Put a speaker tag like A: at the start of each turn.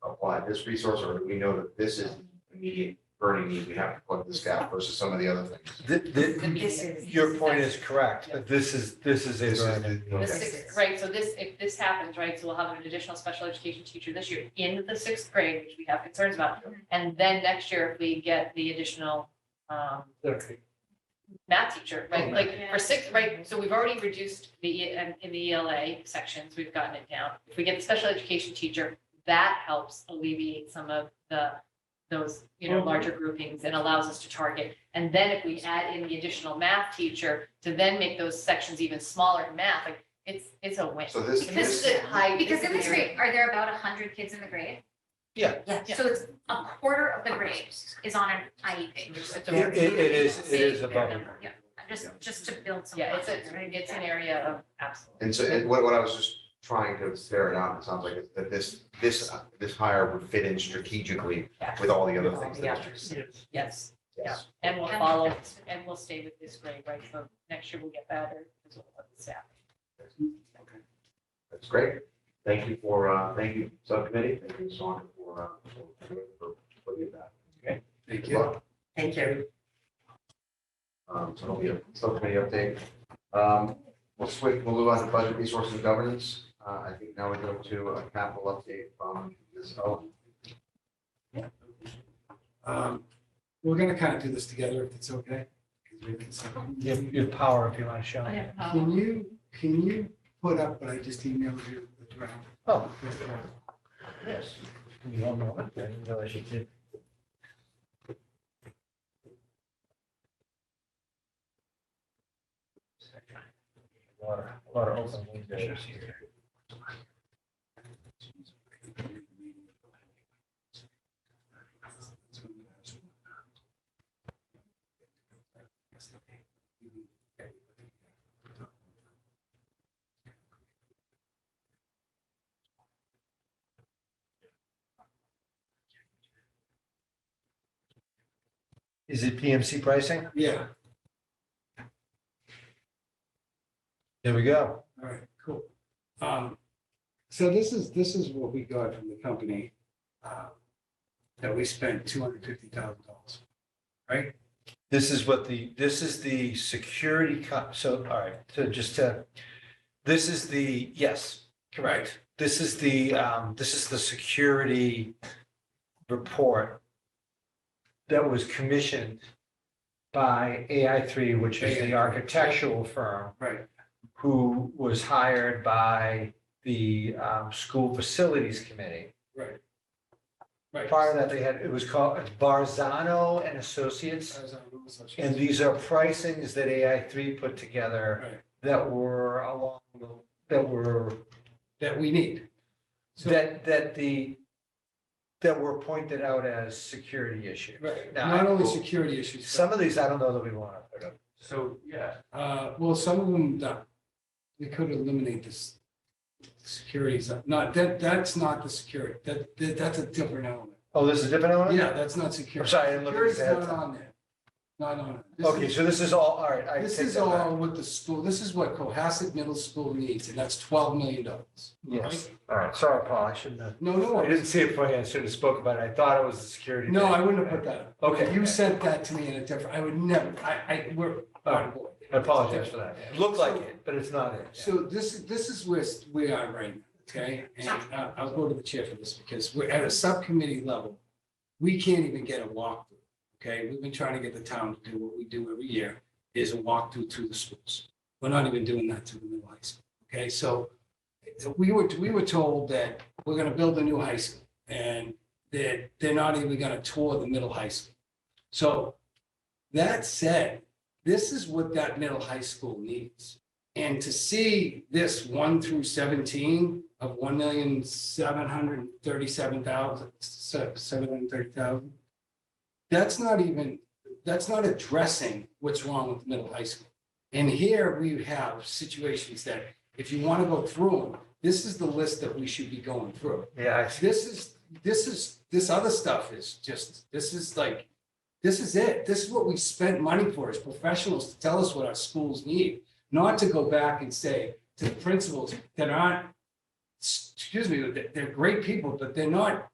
A: provide this resource, or we know that this is immediate burning need, we have to plug this gap versus some of the other things?
B: Th- th-
C: This is-
B: your point is correct, but this is, this is a
A: This is
B: very
A: the-
B: big-
A: okay.
D: The sixth, right, so this, if this happens, right, so we'll have an additional special education teacher this year in the sixth grade, which we have concerns about. And then next year, if we get the additional um
B: Okay.
D: math teacher, right, like
C: Yeah.
D: for sixth, right, so we've already reduced the, E- and in the ELA sections, we've gotten it down. If we get the special education teacher, that helps alleviate some of the, those, you know, larger groupings and allows us to target. And then if we add in the additional math teacher to then make those sections even smaller in math, like it's, it's a win.
A: So this,
D: And This is a high.
C: Because in this
D: area.
C: grade, are there about hundred kids in the grade?
B: Yeah.
C: Yeah,
D: Yeah.
C: so it's a quarter of the grade is on an IEP.
D: It's a-
B: It, it it is, it is
C: Same
B: above.
C: number, Yeah, just, just to build some.
D: Yeah, it's a,
C: confidence,
D: it's an
C: right?
D: area of absolute.
A: and so, and what, what I was just trying to ferret out, it sounds like it's that this, this, uh, this hire would fit in strategically
D: Yeah.
A: with all the other things. that-
D: Yes,
A: Yes.
D: and we'll
C: Yeah.
D: follow, and we'll stay with this grade, right, so next year we'll get better, because we'll have the staff.
A: That's great. Thank you for, uh, thank you, subcommittee. Thank you, Sean, for, uh, for, for looking at that. Okay. Thank you.
E: Thank you.
A: Um, so it'll be a subcommittee update. Um, we'll switch, we'll move on to budget resources and governance. Uh, I think now we go to a capital update from this, oh,
E: Um, We're gonna kind of do this together if it's okay. 'cause we can sort of-
B: Your, your power, if you want to show. it.
E: Can you, can you put up what I just emailed you? the draft?
B: Oh.
E: With,
A: yes.
B: You don't know what, I didn't realize you did. A lot of, a lot of open windows here. Is it PMC pricing?
E: Yeah,
B: There we go.
E: all right, cool. Um, So this is, this is what we got from the company uh, that we spent two hundred fifty thousand dollars.
B: This is what the, this is the security co- so, all right, so just to, this is the, yes, correct. This is the, um, this is the security report that was commissioned by AI three, which is the architectural firm
E: Right.
B: who was hired by the, um, school facilities committee.
E: Right. Right.
B: Prior to that, they had, it was called Barzano and Associates.
E: As I was-
B: And these are pricings that AI three put together
E: Right.
B: that were along, the- that were,
E: That we need. So-
B: that, that the, that were pointed out as security issues.
E: Right,
B: Now,
E: not only
B: I-
E: security issues. but-
B: Some of these, I don't know that we want to put up.
E: So, yeah, uh, well, some of them, that, we could eliminate this. Securities, not, that, that's not the security, that, that, that's a different element.
B: Oh, this is a different one?
E: Yeah, that's not security.
B: I'm sorry, I didn't look at this ahead of
E: Security's
B: time.
E: Not on there, not on it. This
B: Okay,
E: is-
B: so this is all, all right. I
E: This
B: take
E: is
B: that back.
E: all what the school, this is what Cohasset Middle School needs, and that's twelve million dollars.
B: Yes, all right. Sorry, Paul, I shouldn't have.
E: No, no,
B: I didn't see it beforehand. I should have spoke about it. I thought it was the security.
E: no,
B: thing.
E: I wouldn't have put that. up.
B: Okay.
E: You sent that to me in a different, I would never, I, I, we're,
B: All right. I apologize for that. It looked like
E: So-
B: it, but it's not it.
E: So this, this is where we are right now, okay? And I- I'll go to the chair for this because we're at a subcommittee level. We can't even get a walkthrough, okay? We've been trying to get the town to do what we do every year, is a walkthrough to the schools. We're not even doing that to the new high school, okay? So we were, we were told that we're gonna build a new high school and that they're not even gonna tour the middle high school. So that said, this is what that middle high school needs. And to see this one through seventeen of one million seven hundred thirty-seven thousand, seven hundred thirty thousand. That's not even, that's not addressing what's wrong with middle high school. And here we have situations that if you want to go through them, this is the list that we should be going through.
B: Yeah, I see.
E: This is, this is, this other stuff is just, this is like, this is it. This is what we spent money for as professionals to tell us what our schools need. Not to go back and say to the principals that aren't, excuse me, that they're great people, but they're not